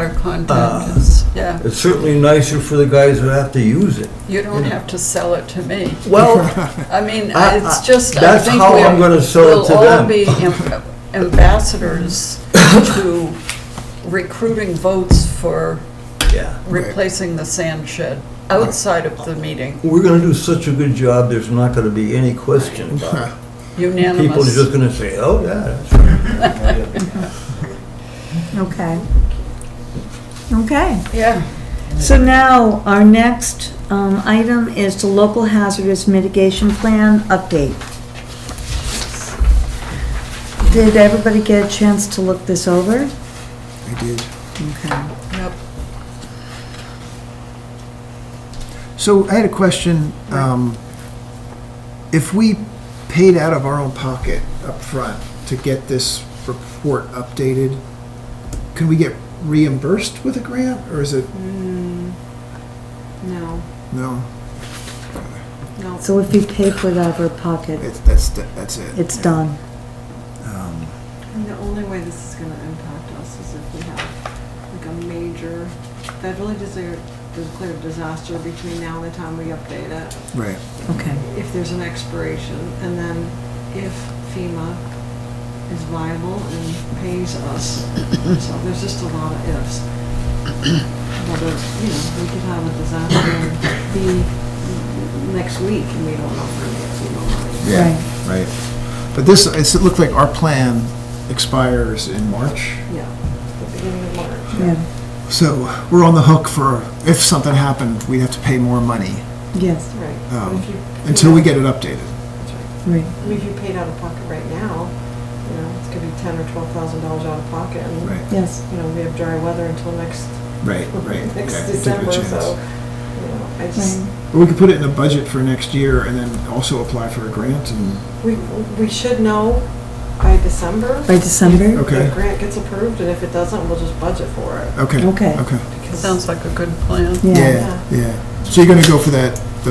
Uh, Our contact is, yeah, It's certainly nicer for the guys who have to use it. you don't have to sell it to me. Well, I mean, I- it's I- just, I that's think how I'm we're- gonna sell it to We'll all them. be am- ambassadors to recruiting votes for yeah. replacing the sand shed outside of the meeting, We're gonna do such a good job, there's not gonna be any question about it. People are unanimous. just gonna say, oh, yeah, that's right. Okay. Okay. Yeah, So now, our next um, item is the local hazardous mitigation plan update. Did everybody get a chance to look this over? I did. Okay. yep. So I had a question. Um, if we paid out of our own pocket up front to get this report updated, can we get reimbursed with a grant or is it, Mm. No, no, no. So if you pay for it out of our pocket, it's, that's, that's it. Um, it's done. And the only way this is gonna impact us is if we have like a major federally desi- declared disaster between now and the time we update it. Right. Okay. If there's an expiration, and then if FEMA is viable and pays us. So there's just a lot of ifs. Whether, you know, we could have a disaster be next week and we don't know if we're gonna get FEMA money. Yeah, right. But this, it's, it looked like our plan expires in March. Yeah, the beginning of March. Yeah, So we're on the hook for, if something happened, we'd have to pay more money, yes, Right. um, If you- until we get it updated. That's right. right. I mean, if you paid out of pocket right now, you know, it's gonna be ten or twelve thousand dollars out of pocket, and, Right, Yes, you know, we have dry weather until next, right, right. okay, next take a December, chance. so, you know, I just, right. But We could put it in the budget for next year and then also apply for a grant and, we, we should know by December. By December? if the Okay. Uh, grant gets approved, and if it doesn't, we'll just budget for it. okay. Okay. Okay. because Sounds like a good plan. Yeah, Yeah, yeah. So you're gonna go for that, the,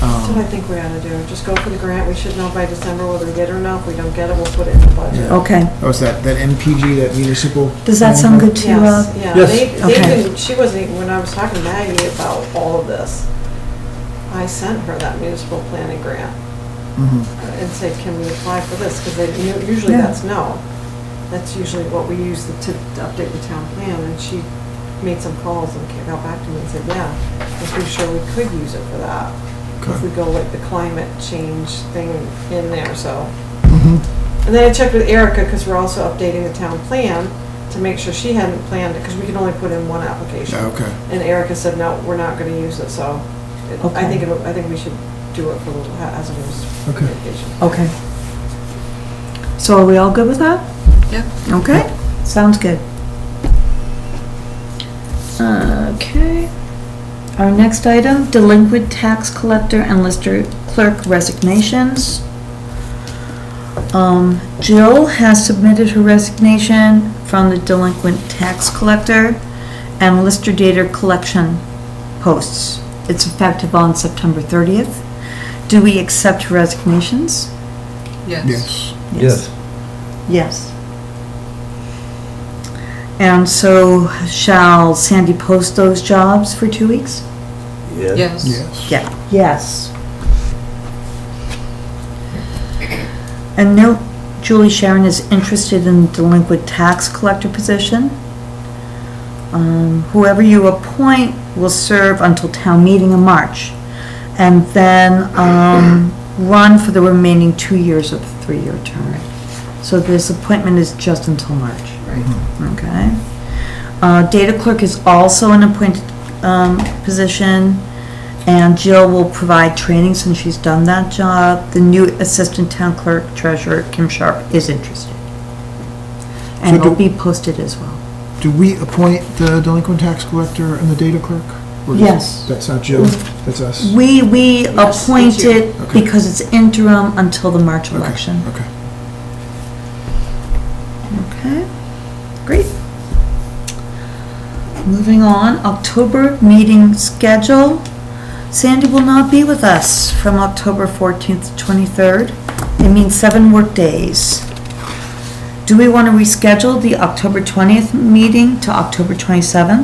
That's what I um, think we ought to do, just go for the grant, we should know by December whether we get it or not, if we don't get it, we'll put it in the budget. Yeah. okay. oh, it's that, that MPG, that municipal? Does that sound good to you, Yes, Rob? yeah, Yes. they, they Okay. didn't, she wasn't even, when I was talking to Maggie about all of this, I sent her that municipal planning grant Mhm. uh, and said, can we apply for this? Because they, you know, usually Yeah. that's no. That's usually what we use to to update the town plan, and she made some calls and ca- got back to me and said, yeah, I'm pretty sure we could use it for that. If Okay. we go like the climate change thing in there, so. Mhm. And then I checked with Erica, because we're also updating the town plan, to make sure she hadn't planned it, because we can only put in one application. Yeah, okay. And Erica said, no, we're not gonna use it, so it- I Okay. think, it'll- I think we should do it for the ha- hazardous Okay. mitigation. Okay. So are we all good with that? Yeah. Okay, sounds good. Okay. Our next item, delinquent tax collector and lister clerk resignations. Um, Jill has submitted her resignation from the delinquent tax collector and lister data collection posts. It's effective on September 30th. Do we accept resignations? Yes. Yes. Yes, Yes. And so shall Sandy post those jobs for two weeks? yes. Yes. Yes. Yeah. Yes. And note, Julie Sharon is interested in the delinquent tax collector position. Um, Whoever you appoint will serve until town meeting in March, and then um, run for the remaining two years of the three-year term. So this appointment is just until March. Right. Okay. Uh, Data clerk is also an appointed um, position, and Jill will provide training since she's done that job. The new assistant town clerk treasurer, Kim Sharp, is interested. And So do- it'll be posted as well. Do we appoint the delinquent tax collector and the data clerk? Or does- Yes. Mm-hmm. That's not Jill, that's us? We, we Yes, we appoint do. it Okay. because it's interim until the March Okay, election. Okay. Okay, great. Moving on, October meeting schedule. Sandy will not be with us from October 14th to 23rd. It means seven work days. Do we want to reschedule the October 20th meeting to October 27th?